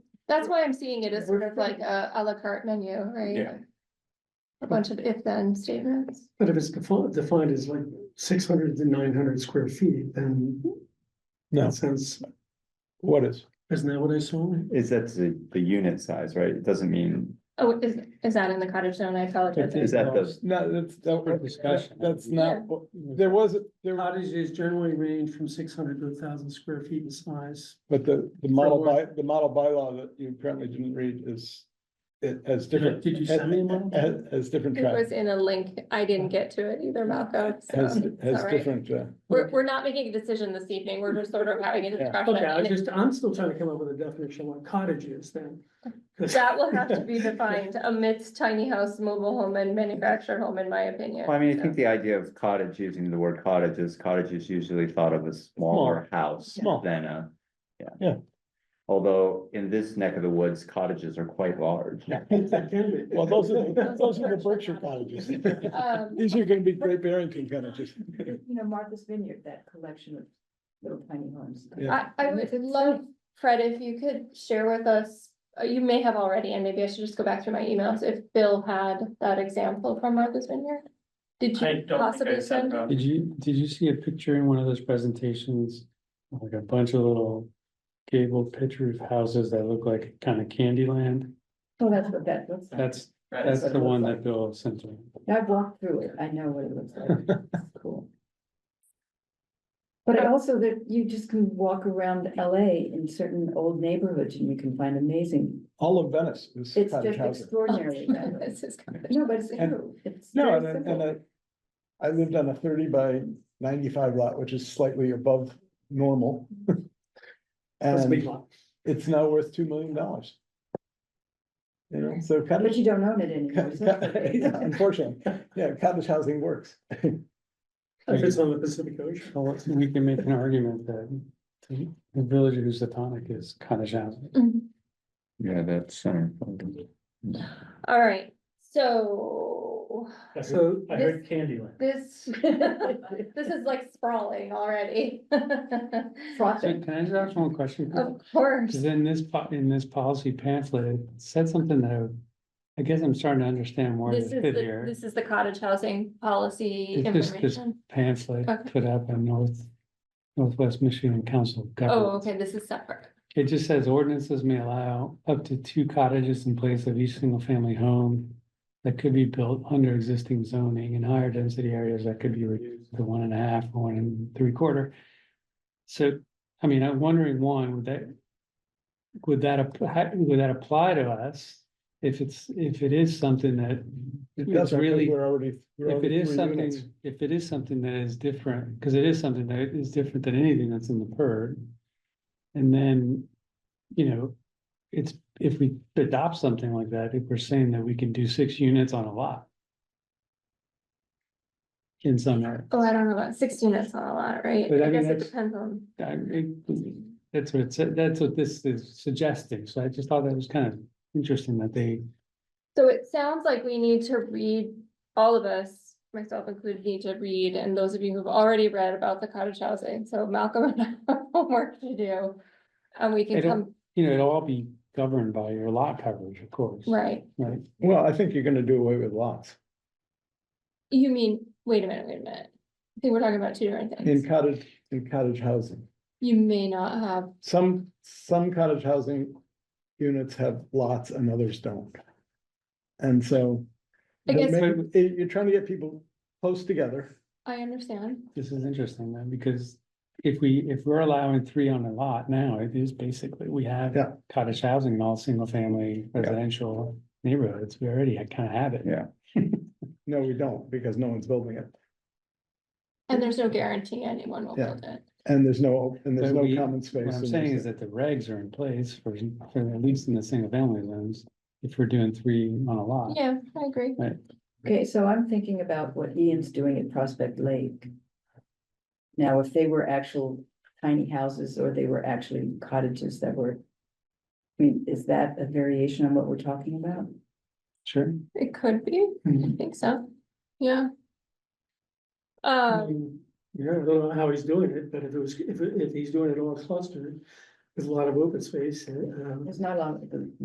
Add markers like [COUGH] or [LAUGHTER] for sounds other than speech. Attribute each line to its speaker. Speaker 1: That's why I'm seeing it as sort of like a à la carte menu,
Speaker 2: Yeah.
Speaker 1: right? A bunch of if-then statements.
Speaker 3: But if it's defined, defined as like six hundred to nine hundred square feet, then
Speaker 4: No,
Speaker 3: that sounds,
Speaker 4: what is?
Speaker 3: isn't that what I saw?
Speaker 2: Is that the, the unit size, right? It doesn't mean,
Speaker 1: Oh, is, is that in the cottage zone? I apologize.
Speaker 2: is that the,
Speaker 4: No, that's,
Speaker 3: For
Speaker 4: that-
Speaker 3: discussion.
Speaker 4: that's
Speaker 1: Yeah.
Speaker 4: not, what- there was, there,
Speaker 3: Cottages generally range from six hundred to thousand square feet in size.
Speaker 4: but the, the model
Speaker 3: For
Speaker 4: by, the model bylaw that you apparently didn't read is. It has different.
Speaker 3: Did you send me a model?
Speaker 4: Has, has different
Speaker 1: It
Speaker 4: track,
Speaker 1: was in a link. I didn't get to it either, Malcolm. so
Speaker 4: has,
Speaker 1: it's
Speaker 4: has
Speaker 1: all right.
Speaker 3: [LAUGHS]
Speaker 4: different, uh,
Speaker 1: We're, we're not making a decision this evening. We're just sort of having a
Speaker 4: Yeah.
Speaker 1: discussion.
Speaker 3: Okay, I was
Speaker 1: and
Speaker 3: just, I'm still trying to come up with a definition of what cottage is then. 'Cause-
Speaker 1: That will have to be defined amidst tiny house, mobile home and manufactured home, in my opinion.
Speaker 2: well, I mean, I
Speaker 1: so.
Speaker 2: think the idea of cottage, using the word cottage is cottage is usually thought of as smaller house
Speaker 4: Small.
Speaker 2: than a. Yeah.
Speaker 4: Yeah.
Speaker 2: Although in this neck of the woods, cottages are quite large.
Speaker 3: That can be.
Speaker 4: well, those are, the- those are the Berkshire cottages.
Speaker 1: Um,
Speaker 4: These are gonna be Great Barrington cottages. [LAUGHS]
Speaker 5: You know, Martha's Vineyard, that collection of little tiny homes.
Speaker 4: Yeah.
Speaker 1: I, I would love, Fred, if you could share with us, uh, you may have already, and maybe I should just go back through my emails, if Bill had that example from Martha's Vineyard? Did you possibly
Speaker 6: uh,
Speaker 1: send?
Speaker 6: Did you, did you see a picture in one of those presentations? Like a bunch of little gabled picture of houses that look like kind of candy land?
Speaker 5: Oh, that's what that looks like.
Speaker 6: That's, that's
Speaker 5: That's
Speaker 6: the
Speaker 5: what it
Speaker 6: one
Speaker 5: looks
Speaker 6: that Bill sent me.
Speaker 5: I've walked through it. I know what it looks
Speaker 4: [LAUGHS]
Speaker 5: like. It's Cool. But I also that you just can walk around LA in certain old neighborhoods and you can find amazing,
Speaker 4: All of Venice is
Speaker 5: it's
Speaker 4: cottage
Speaker 5: just
Speaker 4: housing.
Speaker 1: [LAUGHS]
Speaker 4: [LAUGHS]
Speaker 5: extraordinary.
Speaker 1: This is kind of-
Speaker 5: No, but it's
Speaker 4: And-
Speaker 5: true. It's
Speaker 4: No,
Speaker 5: very
Speaker 4: and, I- and
Speaker 5: simple.
Speaker 4: I, I lived on a thirty by ninety-five lot, which is slightly above normal. [LAUGHS]
Speaker 3: That's a big
Speaker 4: And
Speaker 3: lot.
Speaker 4: it's now worth two million dollars. You know, so
Speaker 5: But
Speaker 4: cottage,
Speaker 5: you don't own it anymore. so-
Speaker 4: [LAUGHS] yeah, unfortunately, yeah, cottage housing works.
Speaker 3: If it's on the Pacific Ocean.
Speaker 6: Well, we can make an argument that the village of Housatonic is cottage housing.
Speaker 1: Mhm.
Speaker 2: Yeah, that's. um,
Speaker 1: All right, so
Speaker 3: So
Speaker 1: I heard
Speaker 3: Candyland.
Speaker 1: this,
Speaker 4: [LAUGHS]
Speaker 5: [LAUGHS]
Speaker 1: this is like sprawling already. [LAUGHS]
Speaker 6: So
Speaker 5: Frothing.
Speaker 6: can I just ask one question?
Speaker 1: Of course.
Speaker 6: Cause in this, po- in this policy pamphlet, it said something that I, would- I guess I'm starting to understand more of
Speaker 1: This is,
Speaker 6: the fit
Speaker 1: the-
Speaker 6: here.
Speaker 1: this is the cottage housing policy
Speaker 6: It's just- it's-
Speaker 1: information.
Speaker 6: Pamphlet
Speaker 1: Okay.
Speaker 6: put up on North, Northwest Michigan Council of Governments.
Speaker 1: Oh, okay, this is separate.
Speaker 6: It just says ordinances may allow up to two cottages in place of each single family home. That could be built under existing zoning in higher density areas that could be reduced to one and a half, one and three quarter. So, I mean, I'm wondering, one, would that. Would that, app- how- would that apply to us? If it's, if it is something that,
Speaker 4: It
Speaker 6: It's
Speaker 4: doesn't, 'cause
Speaker 6: really-
Speaker 4: we're already. we're
Speaker 6: if it
Speaker 4: already
Speaker 6: is
Speaker 4: three
Speaker 6: something,
Speaker 4: units.
Speaker 6: if it is something that is different, because it is something that is different than anything that's in the PERD. And then, you know, it's, if we adopt something like that, if we're saying that we can do six units on a lot. In some area,
Speaker 1: Oh, I don't know about six units on a lot, right?
Speaker 6: But I
Speaker 1: I
Speaker 6: mean,
Speaker 1: guess it
Speaker 6: that's-
Speaker 1: depends on,
Speaker 6: I mean, that's what it said, that's what this is suggesting, so I just thought that was kind of interesting that they.
Speaker 1: so it sounds like we need to read, all of us, myself included, need to read, and those of you who've already read about the cottage housing, so Malcolm and I have [LAUGHS] homework to do. And we can
Speaker 6: It'll-
Speaker 1: come,
Speaker 6: You know, it'll all be governed by your lot coverage, of course.
Speaker 1: right,
Speaker 6: Right,
Speaker 4: Well, I think you're gonna do away with lots.
Speaker 1: you mean, wait a minute, wait a minute, I think we're talking about two different
Speaker 4: In
Speaker 1: things,
Speaker 4: cottage, in cottage housing,
Speaker 1: you may not have,
Speaker 4: some, some cottage housing units have lots and others don't. And so.
Speaker 1: I guess-
Speaker 4: Maybe- it- You're trying to get people close together.
Speaker 1: I understand,
Speaker 6: This is interesting then, because if we, if we're allowing three on a lot now, it is basically, we have
Speaker 4: Yeah.
Speaker 6: cottage housing in all single family residential neighborhoods. We already kind of have it.
Speaker 2: Yeah.
Speaker 4: No, we don't, because no one's building it,
Speaker 1: and there's no guarantee anyone will
Speaker 4: Yeah.
Speaker 1: build it.
Speaker 4: and there's no, and there's
Speaker 6: But
Speaker 4: no
Speaker 6: we-
Speaker 4: common space.
Speaker 6: What I'm
Speaker 4: and
Speaker 6: saying is that
Speaker 4: there's-
Speaker 6: the regs are in place for, for at least in the single family zones, if we're doing three on a lot.
Speaker 1: Yeah, I agree,
Speaker 5: Okay, so I'm thinking about what Ian's doing at Prospect Lake. Now, if they were actual tiny houses or they were actually cottages that were. I mean, is that a variation on what we're talking about?
Speaker 6: Sure.
Speaker 1: it could be, I
Speaker 4: Mm-hmm.
Speaker 1: think so, yeah.
Speaker 3: I
Speaker 1: Um.
Speaker 3: mean, Yeah, I don't know how he's doing it, but if it was, if, if he's doing it all clustered,
Speaker 7: There's a lot of open uh, um, space, and, um.
Speaker 6: There's not a lot of